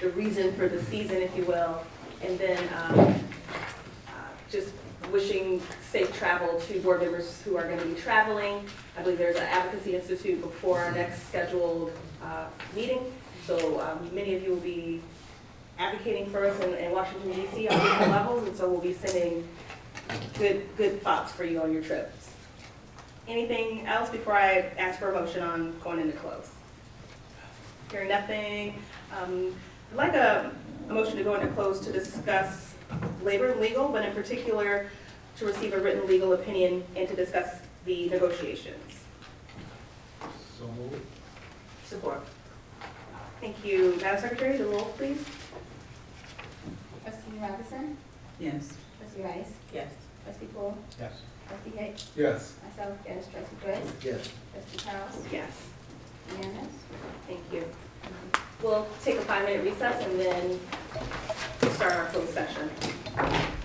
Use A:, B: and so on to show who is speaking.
A: the reason for the season, if you will, and then um, uh, just wishing safe travel to board members who are going to be traveling. I believe there's an advocacy institute before our next scheduled uh, meeting, so um, many of you will be advocating for us in- in Washington DC on different levels, and so we'll be sending good, good thoughts for you on your trips. Anything else before I ask for a motion on going into close? Hearing nothing, um, I'd like a a motion to go into close to discuss labor and legal, but in particular to receive a written legal opinion and to discuss the negotiations.
B: So moved.
A: Support. Thank you. Madam Secretary, the roll, please.
C: Trustee Robinson?
D: Yes.
C: Trustee Rice?
A: Yes.
C: Trustee Paul?
B: Yes.
C: Trustee Hicks?
B: Yes.
C: Myself, yes. Trustee Britt?
B: Yes.
C: Trustee Charles?
A: Yes.
C: Unanimous?
A: Thank you. We'll take a five-minute recess and then start our closed